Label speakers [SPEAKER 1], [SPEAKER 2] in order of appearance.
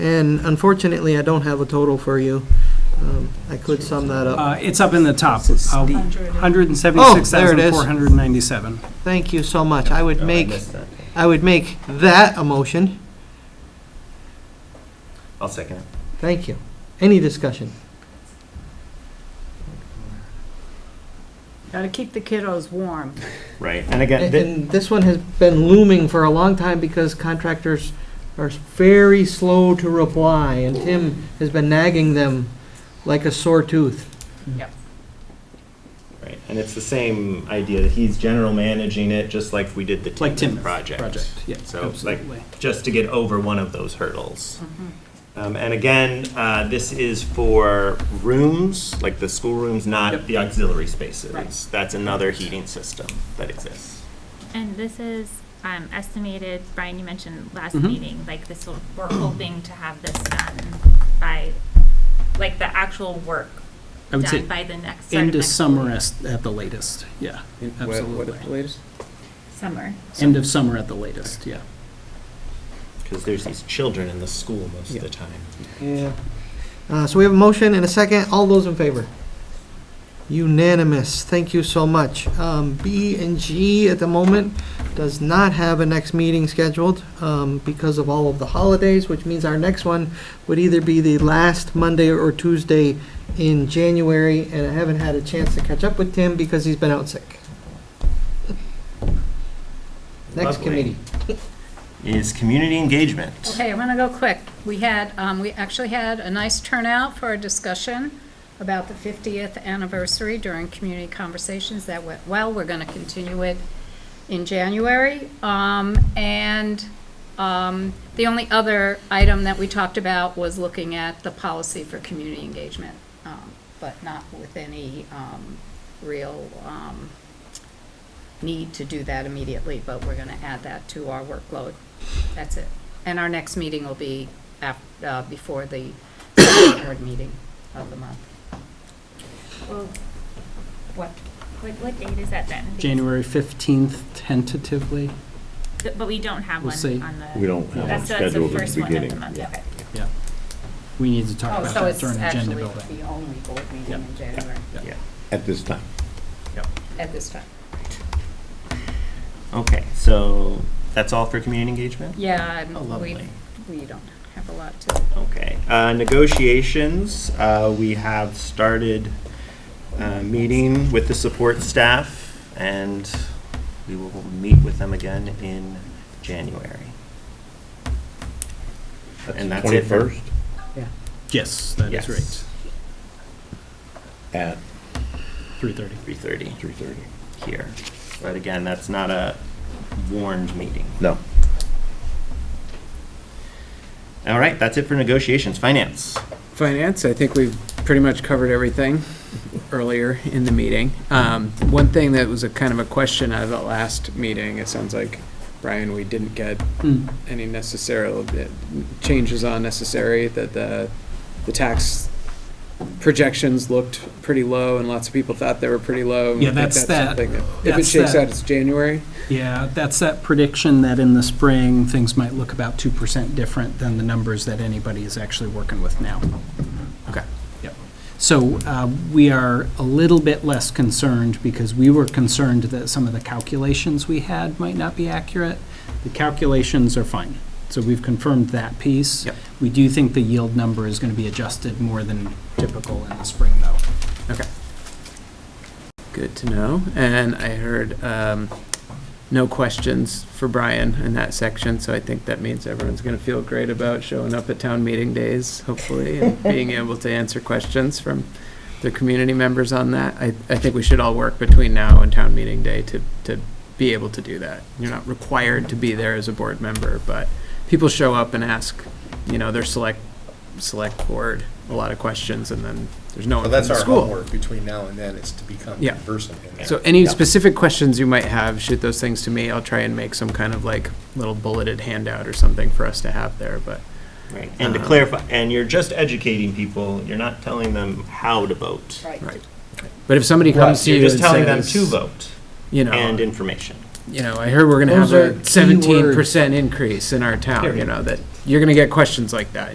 [SPEAKER 1] And unfortunately, I don't have a total for you. Um, I could sum that up.
[SPEAKER 2] Uh, It's up in the top,
[SPEAKER 1] This is
[SPEAKER 2] uh,
[SPEAKER 3] Hundred.
[SPEAKER 2] 176,497.
[SPEAKER 1] Thank you so much. I would
[SPEAKER 4] Oh, I
[SPEAKER 1] make,
[SPEAKER 4] missed that.
[SPEAKER 1] I would make that a motion.
[SPEAKER 4] I'll second it.
[SPEAKER 1] Thank you. Any discussion?
[SPEAKER 3] Gotta keep the kiddos warm.
[SPEAKER 4] Right, and again,
[SPEAKER 1] And
[SPEAKER 4] thi-
[SPEAKER 1] and this one has been looming for a long time because contractors are very slow to reply, and Tim has been nagging them like a sore tooth.
[SPEAKER 4] right, and it's the same idea that he's general managing it, just like we did the
[SPEAKER 2] Like
[SPEAKER 4] Timbers
[SPEAKER 2] timber
[SPEAKER 4] project.
[SPEAKER 2] Project, yeah,
[SPEAKER 4] So, like-
[SPEAKER 2] absolutely.
[SPEAKER 4] just to get over one of those hurdles. Um, and again, uh, this is for rooms, like the schoolrooms, not
[SPEAKER 2] Yep.
[SPEAKER 4] the auxiliary spaces.
[SPEAKER 3] Right.
[SPEAKER 4] That's another heating system that exists.
[SPEAKER 5] And this is um, estimated, Brian, you mentioned last
[SPEAKER 2] Mhm.
[SPEAKER 5] meeting, like this will, we're hoping to have this done by, like the actual work
[SPEAKER 2] I would say
[SPEAKER 5] done by the next. start of
[SPEAKER 2] end of
[SPEAKER 5] next
[SPEAKER 2] summer
[SPEAKER 5] week.
[SPEAKER 2] as- at the latest, yeah, absolutely.
[SPEAKER 5] Summer.
[SPEAKER 2] End of summer at the latest, yeah.
[SPEAKER 4] Because there's these children in the school most of the time.
[SPEAKER 1] Yeah. Uh, So we have a motion and a second. All those in favor? Unanimous. Thank you so much. Um, B and G at the moment does not have a next meeting scheduled um, because of all of the holidays, which means our next one would either be the last Monday or Tuesday in January, and I haven't had a chance to catch up with Tim because he's been out sick. Next
[SPEAKER 4] Lovely.
[SPEAKER 1] committee.
[SPEAKER 4] Is community engagement.
[SPEAKER 3] Okay, I'm gonna go quick. We had, um, we actually had a nice turnout for our discussion about the 50th anniversary during community conversations. That went well. We're gonna continue it in January. Um, and, um, the only other item that we talked about was looking at the policy for community engagement, um, but not with any, um, real, um, need to do that immediately, but we're gonna add that to our workload. That's it. And our next meeting will be af, uh, before the select board meeting of the month.
[SPEAKER 5] Well, What, what, what date is that then? Because-
[SPEAKER 2] January 15th tentatively,
[SPEAKER 5] th- But we don't have
[SPEAKER 2] We'll
[SPEAKER 5] one
[SPEAKER 2] see.
[SPEAKER 5] on the.
[SPEAKER 6] We don't have
[SPEAKER 5] That's-
[SPEAKER 6] one
[SPEAKER 5] that's the
[SPEAKER 6] scheduled at the
[SPEAKER 5] first one of
[SPEAKER 6] beginning,
[SPEAKER 5] month,
[SPEAKER 6] yeah.
[SPEAKER 5] okay.
[SPEAKER 2] yeah. We need to talk
[SPEAKER 3] Oh,
[SPEAKER 2] about
[SPEAKER 3] so
[SPEAKER 2] that
[SPEAKER 3] it's
[SPEAKER 2] during agenda
[SPEAKER 3] actually
[SPEAKER 2] building.
[SPEAKER 3] the only board meeting in January
[SPEAKER 4] Yeah.
[SPEAKER 6] at this time.
[SPEAKER 3] at this time.
[SPEAKER 4] Okay, so that's all for community engagement?
[SPEAKER 3] Yeah,
[SPEAKER 4] Oh,
[SPEAKER 3] and we,
[SPEAKER 4] lovely.
[SPEAKER 3] we don't have a lot to,
[SPEAKER 4] Okay. Uh, Negotiations, uh, we have started uh, meeting with the support staff, and we will meet with them again in January. And that's it for-
[SPEAKER 6] Twenty-first
[SPEAKER 2] Yes, that is
[SPEAKER 4] Yes.
[SPEAKER 2] right,
[SPEAKER 6] at
[SPEAKER 2] 3:30.
[SPEAKER 4] 3:30
[SPEAKER 6] three-thirty.
[SPEAKER 4] here. But again, that's not a warned meeting.
[SPEAKER 6] No.
[SPEAKER 4] All right, that's it for negotiations. Finance.
[SPEAKER 7] Finance, I think we've pretty much covered everything earlier in the meeting. Um, One thing that was a kind of a question out of the last meeting, it sounds like, Brian, we didn't get
[SPEAKER 2] Hmm.
[SPEAKER 7] any necessary, changes on necessary, that the, the tax projections looked pretty low, and lots of people thought they were pretty low. and I
[SPEAKER 2] Yeah,
[SPEAKER 7] think
[SPEAKER 2] that's that-
[SPEAKER 7] something If it
[SPEAKER 2] that's
[SPEAKER 7] shakes
[SPEAKER 2] that-
[SPEAKER 7] out, it's January?
[SPEAKER 2] Yeah, that's that prediction that in the spring, things might look about 2% different than the numbers that anybody is actually working with now.
[SPEAKER 7] Okay.
[SPEAKER 2] Yep. So uh, we are a little bit less concerned because we were concerned that some of the calculations we had might not be accurate. The calculations are fine. So we've confirmed that piece.
[SPEAKER 7] Yep.
[SPEAKER 2] We do think the yield number is going to be adjusted more than typical in the spring, though.
[SPEAKER 7] Okay. Good to know. And I heard um, no questions for Brian in that section, so I think that means everyone's going to feel great about showing up at town meeting days, hopefully, and being able to answer questions from the community members on that. I, I think we should all work between now and town meeting day to, to be able to do that. You're not required to be there as a board member, but people show up and ask, you know, their select, select board a lot of questions, and then there's no one from
[SPEAKER 8] So
[SPEAKER 7] the
[SPEAKER 8] that's
[SPEAKER 7] school.
[SPEAKER 8] our homework between now and then, is to become
[SPEAKER 7] Yeah.
[SPEAKER 8] conversant in that.
[SPEAKER 7] So any
[SPEAKER 4] Yeah.
[SPEAKER 7] specific questions you might have, shoot those things to me. I'll try and make some kind of like little bulleted handout or something for us to have there, but
[SPEAKER 4] Right. And to clarify, and you're just educating people, you're not telling them how to vote.
[SPEAKER 3] right.
[SPEAKER 7] Right. But if somebody comes to
[SPEAKER 4] You're
[SPEAKER 7] you and
[SPEAKER 4] just telling them to
[SPEAKER 7] says,
[SPEAKER 4] vote
[SPEAKER 7] you
[SPEAKER 4] and
[SPEAKER 7] know,
[SPEAKER 4] information.
[SPEAKER 7] you know, I heard we're gonna have
[SPEAKER 1] Those are
[SPEAKER 7] a
[SPEAKER 1] key
[SPEAKER 7] seventeen percent increase in our town, you
[SPEAKER 4] Period.
[SPEAKER 7] know, that, you're gonna get questions like that.